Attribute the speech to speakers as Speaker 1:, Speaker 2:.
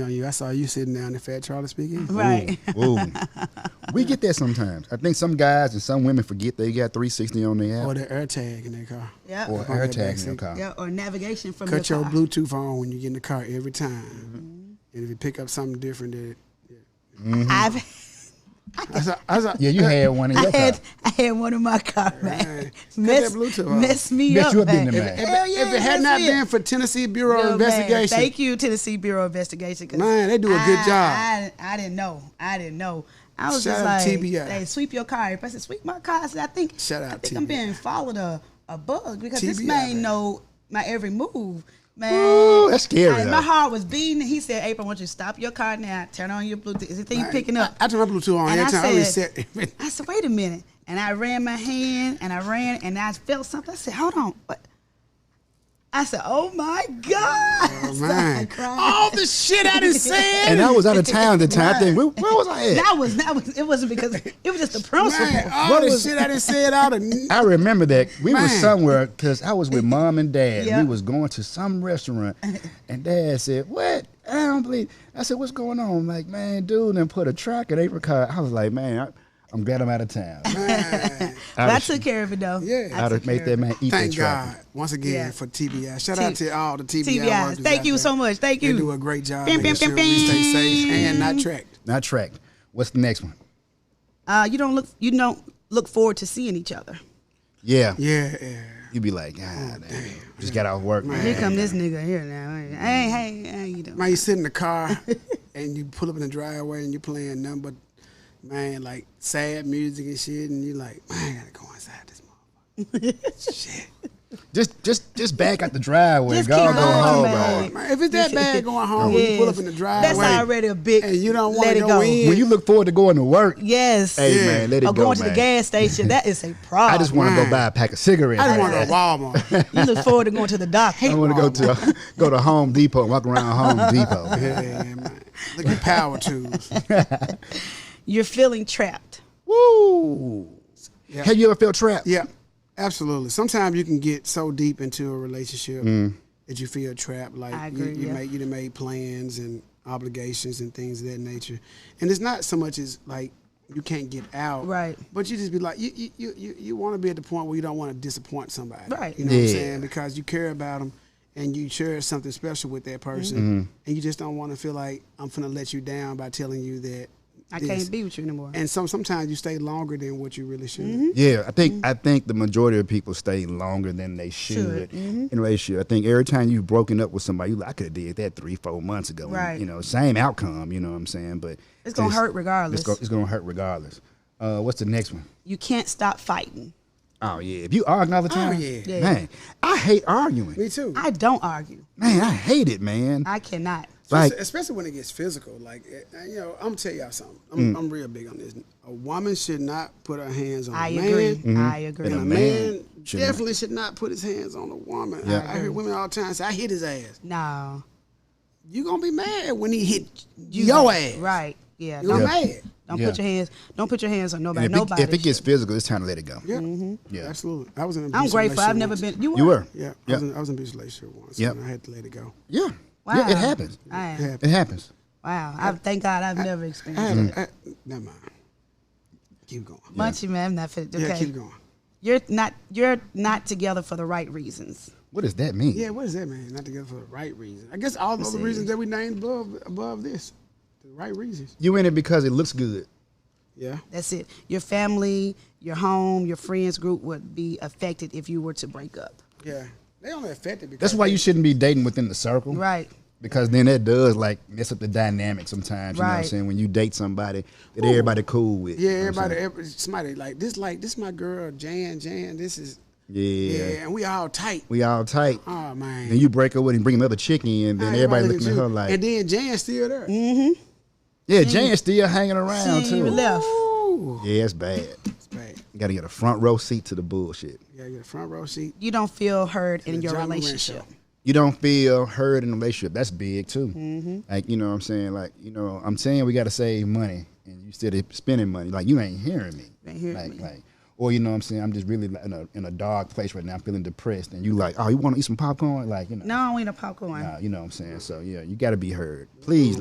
Speaker 1: on you. I saw you sitting down in Fat Charlie speaking.
Speaker 2: Mm-hmm. Right.
Speaker 3: Ooh, ooh. we get that sometimes. I think some guys and some women forget they got 360 on their app
Speaker 1: Or the air tag in their car.
Speaker 2: Yep.
Speaker 3: or, uh,
Speaker 2: Or,
Speaker 1: their
Speaker 3: air tag in
Speaker 1: backseat.
Speaker 3: your car.
Speaker 2: yeah, or navigation from
Speaker 1: Cut
Speaker 2: your,
Speaker 1: your
Speaker 2: car.
Speaker 1: Bluetooth on when you get in the car every time.
Speaker 2: Mm-hmm.
Speaker 1: And if you pick up something different, that
Speaker 2: I've
Speaker 1: I saw, I saw, uh,
Speaker 3: Yeah, you had one in
Speaker 2: I
Speaker 3: your car.
Speaker 2: had I had one in my car, man.
Speaker 1: Cut that
Speaker 2: Mess,
Speaker 1: Bluetooth off.
Speaker 2: mess me
Speaker 3: Bet
Speaker 2: up.
Speaker 3: you have been
Speaker 2: man.
Speaker 3: to
Speaker 1: If,
Speaker 3: man.
Speaker 2: Hell
Speaker 1: if
Speaker 2: yeah,
Speaker 1: it had
Speaker 2: that's
Speaker 1: not
Speaker 2: it.
Speaker 1: been for Tennessee Bureau of
Speaker 2: No, man.
Speaker 1: Investigation,
Speaker 2: Thank you, Tennessee Bureau of Investigation. 'cause
Speaker 1: Man, they do a good job.
Speaker 2: I- I, I didn't know. I didn't know. I was
Speaker 1: Shout
Speaker 2: just
Speaker 1: out
Speaker 2: like,
Speaker 1: TBI.
Speaker 2: they sweep your car. If I said sweep my car, I said I think
Speaker 1: Shout
Speaker 2: I
Speaker 1: out
Speaker 2: think I'm
Speaker 1: TBI.
Speaker 2: being followed a, a bug because this
Speaker 1: TBI,
Speaker 2: man
Speaker 1: man.
Speaker 2: know my every move, man.
Speaker 3: Ooh, that's scary,
Speaker 2: Like,
Speaker 3: though.
Speaker 2: my heart was beating. He said, "April, I want you to stop your car now. Turn on your Bluetooth. Is the thing you picking up?"
Speaker 1: I, I turn my Bluetooth on
Speaker 2: And
Speaker 1: every
Speaker 2: I
Speaker 1: time. I
Speaker 2: said-
Speaker 1: reset everything.
Speaker 2: I said, wait a minute. And I ran my hand and I ran and I felt something. I said, hold on. What? I said, oh my God.
Speaker 1: Oh,
Speaker 2: So I
Speaker 1: man. Oh,
Speaker 2: cried.
Speaker 1: All the shit I done said.
Speaker 3: And I was out of town at the time. I think, where, where was I at?
Speaker 2: That was, that was, it wasn't because, it was just the principle.
Speaker 1: Man, oh, all
Speaker 3: What
Speaker 1: the
Speaker 3: is-
Speaker 1: shit I done said out of
Speaker 3: I remember that we were
Speaker 1: Man.
Speaker 3: somewhere because I was with mom and dad.
Speaker 2: Yeah.
Speaker 3: And we was going to some restaurant, and dad said, "What? I don't believe." I said, "What's going on?" I'm like, man, dude, and put a track in apricot. I was like, man, I, I'm glad I'm out of town.
Speaker 2: But I took care of it though.
Speaker 1: Yeah.
Speaker 2: I
Speaker 3: I'd
Speaker 2: took
Speaker 3: have
Speaker 2: care
Speaker 3: made
Speaker 2: of
Speaker 3: that
Speaker 2: it.
Speaker 3: man eat that
Speaker 1: Thank
Speaker 3: track.
Speaker 1: God once again
Speaker 2: Yeah.
Speaker 1: for TBI. Shout
Speaker 2: T-
Speaker 1: out to all the TBI.
Speaker 2: TBIs.
Speaker 1: workers
Speaker 2: Thank
Speaker 1: out
Speaker 2: you
Speaker 1: there.
Speaker 2: so much. Thank you.
Speaker 1: They do a great job.
Speaker 2: Bing,
Speaker 1: making
Speaker 2: bing,
Speaker 1: sure
Speaker 2: bing,
Speaker 1: we stay
Speaker 2: bing.
Speaker 1: safe and not tracked.
Speaker 3: Not track. What's the next one?
Speaker 2: Uh, you don't look, you don't look forward to seeing each other.
Speaker 3: Yeah,
Speaker 1: Yeah, yeah.
Speaker 3: you'd be like,
Speaker 2: Oh,
Speaker 3: God, damn. just got out of work, man.
Speaker 2: Here come this nigga here now. Hey, hey, hey, you doing?
Speaker 1: Man, you sit in the car and you pull up in the driveway and you playing nothing but man like sad music and shit, and you like, man, I gotta go inside this motherfucker. shit.
Speaker 3: Just, just, just back out the driveway.
Speaker 2: Just
Speaker 3: Go,
Speaker 2: keep
Speaker 3: go
Speaker 2: going,
Speaker 3: home,
Speaker 2: man.
Speaker 3: man.
Speaker 1: Man, if it's that bad going home, when you pull up in the
Speaker 2: Yes.
Speaker 1: driveway,
Speaker 2: That's already a big
Speaker 1: and you don't
Speaker 2: let
Speaker 1: want
Speaker 2: it
Speaker 1: to
Speaker 2: go.
Speaker 1: go in.
Speaker 3: When you look forward to going to work,
Speaker 2: Yes.
Speaker 3: hey
Speaker 1: Yeah.
Speaker 3: man, let it
Speaker 2: or
Speaker 3: go,
Speaker 2: going to
Speaker 3: man.
Speaker 2: the gas station. That is a problem.
Speaker 3: I just want to
Speaker 1: Man.
Speaker 3: go buy a pack of cigarettes.
Speaker 1: I just want to go
Speaker 3: man.
Speaker 1: to Walmart.
Speaker 2: You look forward to going to the doctor.
Speaker 3: I want to go to go to Home Depot and walk around Home Depot.
Speaker 1: yeah, man. Look at power tools.
Speaker 2: You're feeling trapped.
Speaker 3: Woo!
Speaker 1: Yeah.
Speaker 3: Have you ever felt trapped?
Speaker 1: Yeah, absolutely. Sometimes you can get so deep into a relationship that you feel trapped. Like
Speaker 2: I
Speaker 1: you,
Speaker 2: agree,
Speaker 1: you
Speaker 2: yeah.
Speaker 1: make you done made plans and obligations and things of that nature, and it's not so much as like you can't get out,
Speaker 2: Right.
Speaker 1: But you just be like you you you, you, you want to be at the point where you don't want to disappoint somebody,
Speaker 2: Right.
Speaker 1: You know what I'm
Speaker 3: Yeah.
Speaker 1: saying? Because you care about them. And you share something special with that person, and you just don't want to feel like I'm gonna let you down by telling you that
Speaker 2: I
Speaker 1: this."
Speaker 2: can't be with you anymore.
Speaker 1: And so sometimes you stay longer than what you really should.
Speaker 2: Mm-hmm.
Speaker 3: Yeah, I think I think the majority of people stay longer than they should
Speaker 2: Mm-hmm.
Speaker 3: in a relationship. I think every time you've broken up with somebody, you like, I could have did that three, four months ago. and,
Speaker 2: Right.
Speaker 3: you know, same outcome. You know what I'm saying? But
Speaker 2: It's gonna hurt regardless.
Speaker 3: It's gonna, it's gonna hurt regardless. Uh, what's the next one?
Speaker 2: you can't stop fighting.
Speaker 3: Oh yeah, if you argue all the time,
Speaker 1: yeah.
Speaker 2: Yeah.
Speaker 3: man, I hate arguing.
Speaker 1: Me too.
Speaker 2: I don't argue.
Speaker 3: Man, I hate it, man.
Speaker 2: I cannot.
Speaker 3: like
Speaker 1: Especially- especially when it gets physical. Like, eh, eh, you know, I'm gonna tell y'all something. I'm,
Speaker 3: Mm.
Speaker 1: I'm real big on this. A woman should not put her hands on
Speaker 2: I
Speaker 1: a man.
Speaker 2: agree. I
Speaker 3: And
Speaker 1: And
Speaker 3: Mm-hmm. a
Speaker 1: a
Speaker 2: agree.
Speaker 1: man,
Speaker 3: man should not.
Speaker 1: definitely should not put his hands on a woman.
Speaker 3: Yeah.
Speaker 1: I, I hear women all the time say, "I hit his ass."
Speaker 2: No.
Speaker 1: You gonna be mad when he hit your ass.
Speaker 2: Right. Yeah.
Speaker 1: You
Speaker 2: Don't,
Speaker 3: Yeah.
Speaker 1: mad?
Speaker 2: don't
Speaker 3: Yeah.
Speaker 2: put your hands. Don't put your hands on
Speaker 3: And
Speaker 2: nobody.
Speaker 3: if,
Speaker 2: nobody.
Speaker 3: It, if it gets
Speaker 2: should.
Speaker 3: physical, it's time to let it go.
Speaker 1: Yeah.
Speaker 3: Yeah.
Speaker 1: Absolutely. I was in. An
Speaker 2: Mm-hmm. I'm
Speaker 1: abusive
Speaker 2: grateful. I've
Speaker 1: relationship
Speaker 2: never
Speaker 1: once.
Speaker 2: been. You were.
Speaker 3: You were.
Speaker 1: Yeah. I,
Speaker 3: Yeah.
Speaker 1: was in, I was in an abusive relationship once.
Speaker 3: Yeah.
Speaker 1: and I had to let it go.
Speaker 3: Yeah.
Speaker 2: Wow.
Speaker 3: Yeah, it happens.
Speaker 2: I-
Speaker 1: Yeah.
Speaker 3: It happens.
Speaker 2: wow. I, thank God I've never
Speaker 1: I
Speaker 2: experienced
Speaker 3: Mm-hmm.
Speaker 1: had.
Speaker 2: that.
Speaker 1: A, I, never mind. Keep going.
Speaker 2: Munchie man, I'm not fit. Okay.
Speaker 1: Yeah. Keep going.
Speaker 2: You're not. You're not together for the right reasons.
Speaker 3: What does that mean?
Speaker 1: Yeah, what does that mean? Not together for the right reason. I guess all the other reasons that we named above above this, the right reasons.
Speaker 3: You in it because it looks good.
Speaker 1: Yeah,
Speaker 2: That's it. Your family, your home, your friends group would be affected if you were to break up.
Speaker 1: yeah. They only affected because
Speaker 3: That's why you shouldn't be dating within the circle.
Speaker 2: Right.
Speaker 3: Because then that does like mess up the dynamic sometimes. You know what I'm
Speaker 2: Right.
Speaker 3: saying? When you date somebody that everybody cool with.
Speaker 1: Yeah,
Speaker 3: you know what I'm
Speaker 1: everybody,
Speaker 3: saying?
Speaker 1: every, somebody like this, like this, my girl Jan, Jan. This is
Speaker 3: Yeah.
Speaker 1: and we all tight.
Speaker 3: We all tight.
Speaker 1: Oh man,
Speaker 3: Then you break up with him, bring another chick in, then
Speaker 1: Now
Speaker 3: everybody
Speaker 1: look
Speaker 3: looking at
Speaker 1: you.
Speaker 3: her like,
Speaker 1: and then Jan's still there.
Speaker 3: yeah, Jane's still hanging
Speaker 2: She
Speaker 3: around
Speaker 2: ain't
Speaker 3: too.
Speaker 2: even left.
Speaker 1: Ooh,
Speaker 3: Yeah, it's bad.
Speaker 1: it's bad.
Speaker 3: You gotta get a front row seat to the bullshit.
Speaker 1: You gotta get a front row seat.
Speaker 2: You don't feel heard in
Speaker 1: the
Speaker 2: your
Speaker 1: John Moran
Speaker 2: relationship.
Speaker 1: show.
Speaker 3: you don't feel heard in a relationship. That's big too. Like you know what I'm saying. Like you know I'm saying we got to save money, and you still spending money. Like you ain't hearing me.
Speaker 2: Ain't hearing
Speaker 3: like
Speaker 2: me.
Speaker 3: like. Or you know what I'm saying I'm just really like, in a in a dark place right now. I'm feeling depressed, and you like, oh, you want to eat some popcorn? Like you know,
Speaker 2: No, I ain't a popcorn.
Speaker 3: Nah, you know what I'm saying. So yeah, you got to be heard. Please,